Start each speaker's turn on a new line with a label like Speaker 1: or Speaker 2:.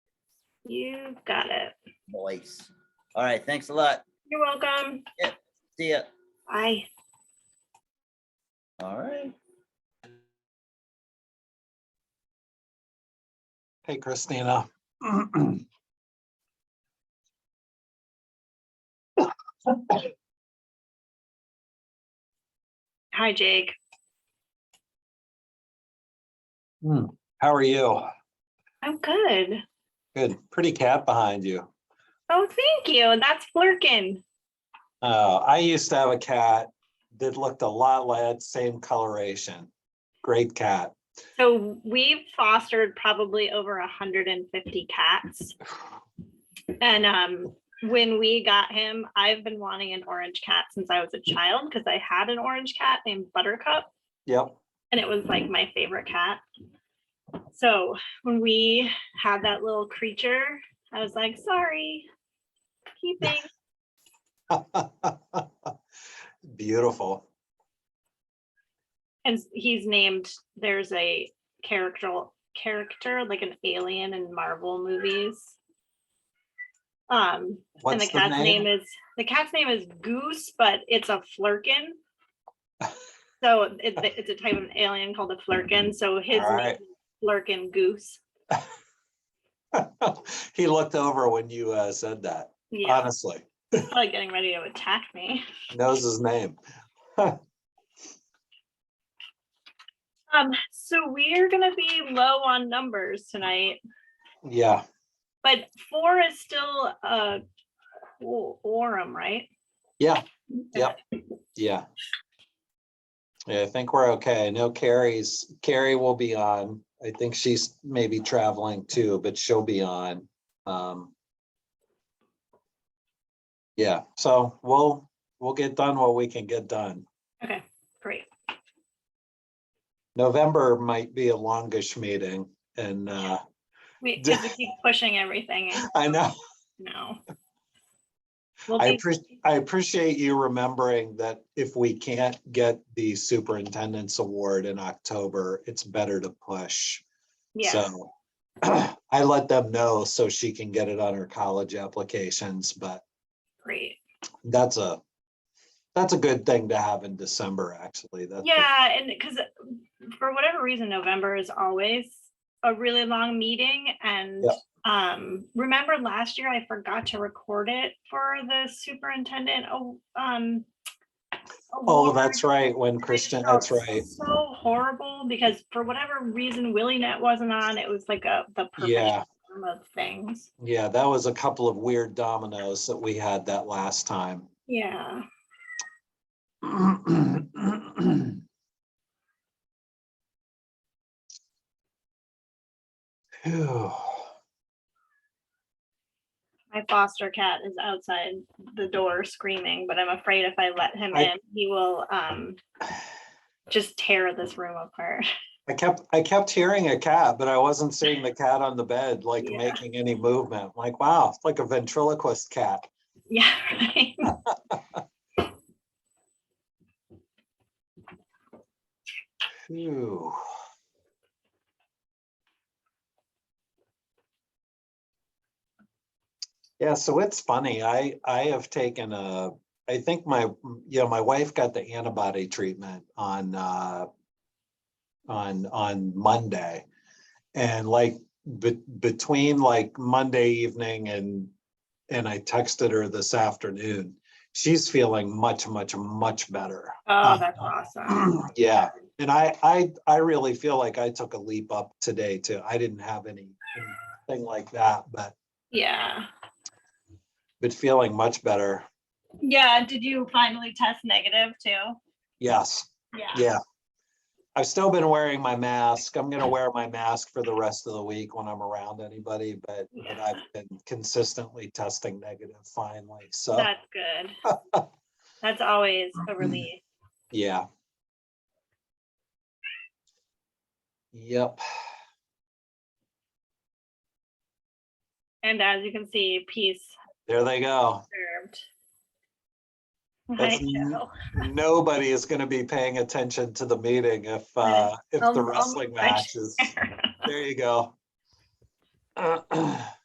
Speaker 1: You got it.
Speaker 2: voice. All right, thanks a lot.
Speaker 1: You're welcome.
Speaker 2: See ya.
Speaker 1: Bye.
Speaker 2: All right.
Speaker 3: Hey, Christina.
Speaker 1: Hi, Jake.
Speaker 3: How are you?
Speaker 1: I'm good.
Speaker 3: Good. Pretty cat behind you.
Speaker 1: Oh, thank you. That's Flurkin.
Speaker 3: Uh, I used to have a cat that looked a lot like same coloration. Great cat.
Speaker 1: So we've fostered probably over 150 cats. And um, when we got him, I've been wanting an orange cat since I was a child because I had an orange cat named Buttercup.
Speaker 3: Yep.
Speaker 1: and it was like my favorite cat. So when we had that little creature, I was like, sorry, keeping.
Speaker 3: Beautiful.
Speaker 1: And he's named, there's a character, character like an alien in Marvel movies. Um, and the
Speaker 3: What's the
Speaker 1: cat's name
Speaker 3: name?
Speaker 1: is, the cat's name is Goose, but it's a flurkin. So it, it's a type of alien called a flurkin. So his
Speaker 3: All
Speaker 1: name
Speaker 3: right.
Speaker 1: is Flurkin Goose.
Speaker 3: He looked over when you uh, said that,
Speaker 1: Yeah,
Speaker 3: honestly.
Speaker 1: probably getting ready to attack me.
Speaker 3: Knows his name.
Speaker 1: Um, so we're gonna be low on numbers tonight,
Speaker 3: Yeah.
Speaker 1: but four is still a quorum, right?
Speaker 3: Yeah. Yep. Yeah. Yeah, I think we're okay. I know Carrie's, Carrie will be on. I think she's maybe traveling too, but she'll be on. Um Yeah, so we'll, we'll get done what we can get done.
Speaker 1: Okay, great.
Speaker 3: November might be a longish meeting and uh
Speaker 1: We, 'cause we keep pushing everything and
Speaker 3: I know,
Speaker 1: no. We'll
Speaker 3: I
Speaker 1: be,
Speaker 3: appreciate, I appreciate you remembering that if we can't get the superintendent's award in October, it's better to push.
Speaker 1: yeah,
Speaker 3: So I let them know so she can get it on her college applications, but
Speaker 1: great.
Speaker 3: that's a, that's a good thing to have in December, actually. That's a-
Speaker 1: Yeah, and because for whatever reason, November is always a really long meeting and
Speaker 3: Yeah.
Speaker 1: um, remember last year I forgot to record it for the superintendent, oh, um.
Speaker 3: Oh,
Speaker 1: award.
Speaker 3: that's right. When
Speaker 1: I just
Speaker 3: Christian,
Speaker 1: felt
Speaker 3: that's right.
Speaker 1: So horrible because for whatever reason, WillieNet wasn't on. It was like a, the perfect
Speaker 3: Yeah.
Speaker 1: storm of things.
Speaker 3: Yeah, that was a couple of weird dominoes that we had that last time.
Speaker 1: Yeah.
Speaker 3: Phew.
Speaker 1: My foster cat is outside the door screaming, but I'm afraid if I let him
Speaker 3: I-
Speaker 1: in, he will, um, just tear this room apart.
Speaker 3: I kept, I kept hearing a cat, but I wasn't seeing the cat on the bed, like
Speaker 1: Yeah.
Speaker 3: making any movement. Like, wow, it's like a ventriloquist cat.
Speaker 1: Yeah, right.
Speaker 3: Phew. Yeah, so it's funny. I, I have taken a, I think my, yeah, my wife got the antibody treatment on, uh, on, on Monday. And like, be- between like Monday evening and, and I texted her this afternoon, she's feeling much, much, much better.
Speaker 1: Oh, that's awesome.
Speaker 3: Yeah, and I, I, I really feel like I took a leap up today too. I didn't have any, anything like that, but,
Speaker 1: Yeah.
Speaker 3: but feeling much better.
Speaker 1: Yeah. Did you finally test negative too?
Speaker 3: Yes,
Speaker 1: Yeah.
Speaker 3: yeah. I've still been wearing my mask. I'm gonna wear my mask for the rest of the week when I'm around anybody, but, but
Speaker 1: Yeah.
Speaker 3: I've been consistently testing negative finally, so,
Speaker 1: That's good. That's always
Speaker 3: Mm-hmm.
Speaker 1: a relief.
Speaker 3: yeah. Yep,
Speaker 1: And as you can see, peace
Speaker 3: there they go.
Speaker 1: served.
Speaker 3: That's
Speaker 1: I
Speaker 3: n-
Speaker 1: know.
Speaker 3: nobody is gonna be paying attention to the meeting if, uh, if
Speaker 1: Um,
Speaker 3: the
Speaker 1: um,
Speaker 3: wrestling
Speaker 1: I-
Speaker 3: matches. There you go.